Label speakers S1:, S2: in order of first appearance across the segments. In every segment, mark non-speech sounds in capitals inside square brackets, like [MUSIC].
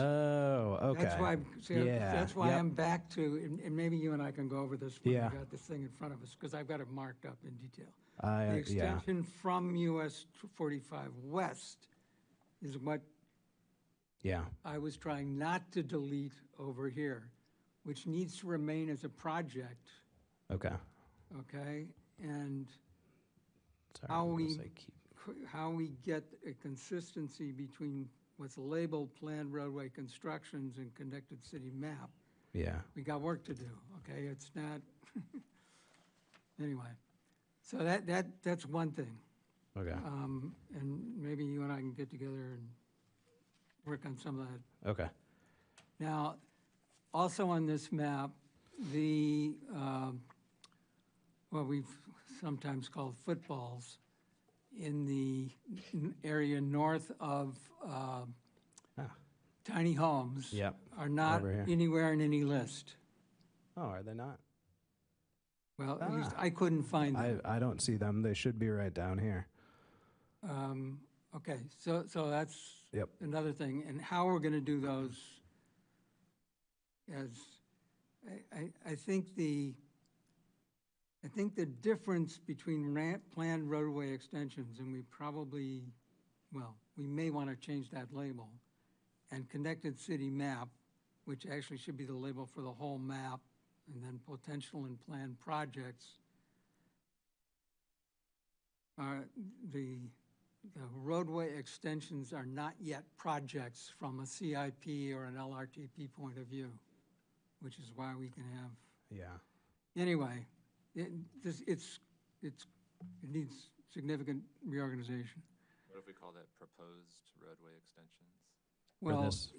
S1: Oh, Okay.
S2: That's why, I'm- see,
S1: Yeah,
S2: that's why
S1: yep.
S2: I'm back to, and- and maybe you and I can go over this when we
S1: Yeah.
S2: got this thing in front of us, because I've got it marked up in detail.
S1: I, uh,
S2: The
S1: yeah,
S2: extension from US 45 West is what
S1: yeah,
S2: I was trying not to delete over here, which needs to remain as a project,
S1: okay.
S2: okay? And
S1: Sorry,
S2: How
S1: I'm gonna
S2: we-
S1: say keep-
S2: c- how we get a consistency between what's labeled planned roadway constructions and connected city map.
S1: Yeah,
S2: we got work to do, okay? It's not, [LAUGHS] anyway. So that, that, that's one thing.
S1: okay,
S2: Um, and maybe you and I can get together and work on some of that.
S1: okay,
S2: Now, also on this map, the, um, what we've sometimes called footballs in the n- area north of, uh,
S1: Ah.
S2: tiny homes.
S1: Yep,
S2: Are not
S1: over here.
S2: anywhere in any list.
S1: oh, are they not?
S2: Well, at least I couldn't find
S1: I,
S2: them.
S1: I don't see them, they should be right down here.
S2: Um, Okay, so, so that's
S1: Yep.
S2: another thing, and how we're gonna do those as, I, I, I think the, I think the difference between ran planned roadway extensions, and we probably, well, we may wanna change that label, and connected city map, which actually should be the label for the whole map, and then potential and planned projects, are the, the roadway extensions are not yet projects from a CIP or an LRTP point of view, which is why we can have,
S1: Yeah,
S2: anyway, it, this, it's, it's, it needs significant reorganization.
S3: What if we call that proposed roadway extensions?
S2: Well,
S1: this-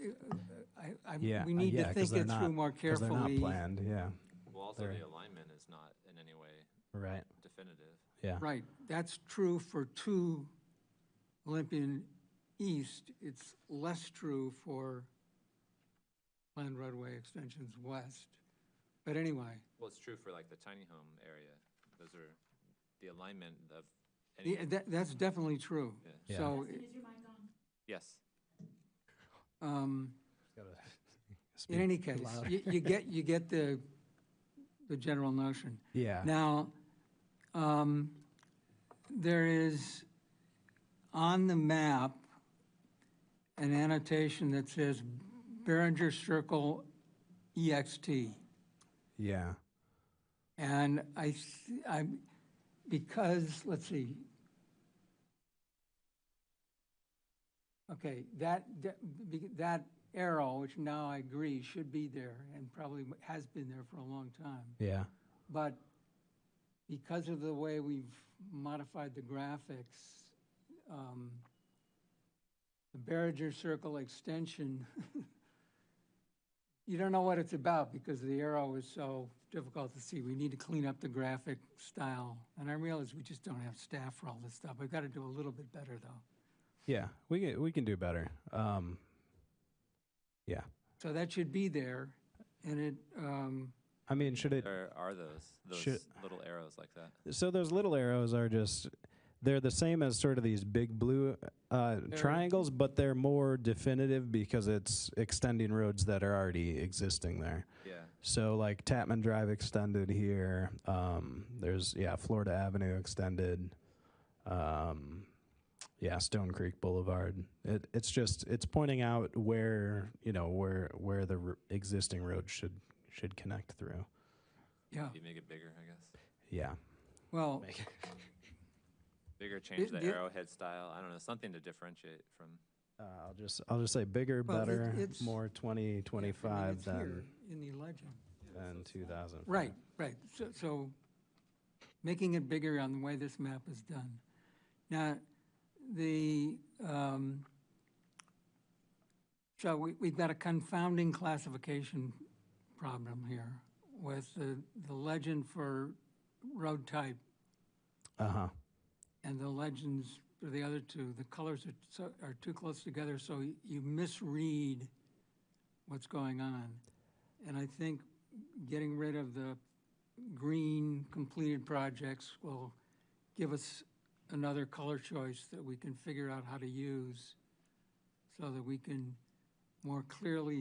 S2: I, I,
S1: yeah,
S2: we
S1: uh,
S2: need
S1: yeah, 'cause
S2: to think
S1: they're
S2: it through
S1: not-
S2: more
S1: 'cause they're not
S2: carefully.
S1: planned, yeah,
S3: Well, also
S1: There.
S3: the alignment is not in any way
S1: right,
S3: definitive.
S1: yeah,
S2: Right, that's true for two Olympian East, it's less true for planned roadway extensions west. But anyway,
S3: Well, it's true for like the tiny home area. Those are the alignment of any,
S2: the- that, that's definitely true.
S1: Yeah.
S2: So,
S3: yes.
S2: um, [LAUGHS]
S1: Speak
S2: in any case,
S1: louder.
S2: you, you get, you get the, the general notion.
S1: yeah,
S2: Now, um, there is on the map an annotation that says Behringer Circle E EXT.
S1: yeah,
S2: And I, th- I'm, because, let's see. Okay, that, that- be- that arrow, which now I agree should be there and probably has been there for a long time.
S1: yeah,
S2: But because of the way we've modified the graphics, um, the Barringer Circle extension, [LAUGHS] you don't know what it's about because the arrow is so difficult to see. We need to clean up the graphic style. And I realize we just don't have staff for all this stuff. We've got to do a little bit better, though.
S1: yeah, we can, we can do better, um, yeah.
S2: So that should be there, and it, um,
S1: I mean, should it,
S3: There are those,
S1: Should-
S3: those little arrows like that.
S1: so those little arrows are just they're the same as sort of these big blue uh, triangles but they're more definitive because it's extending roads that are already existing there
S3: Yeah.
S1: so like tapman drive extended here um, there's yeah florida avenue extended um, yeah stone creek boulevard it, it's just it's pointing out where you know where where the r- existing road should should connect through Oh.
S2: yeah,
S3: You make it bigger, I guess.
S1: yeah
S2: well,
S3: Bigger, change the
S2: the-
S3: arrowhead style. I don't know, something to differentiate from.
S1: Uh, I'll just I'll just say bigger,
S2: Well, it-
S1: better,
S2: it's-
S1: more twenty twenty
S2: I mean,
S1: five
S2: it's here
S1: than
S2: in the legend.
S1: than two thousand.
S2: Right, right. So, so making it bigger on the way this map is done. Now, the, um, so we, we've got a confounding classification problem here with the, the legend for road type
S1: Uh huh.
S2: and the legends for the other two. The colors are, so- are too close together, so y- you misread what's going on. And I think getting rid of the green completed projects will give us another color choice that we can figure out how to use so that we can more clearly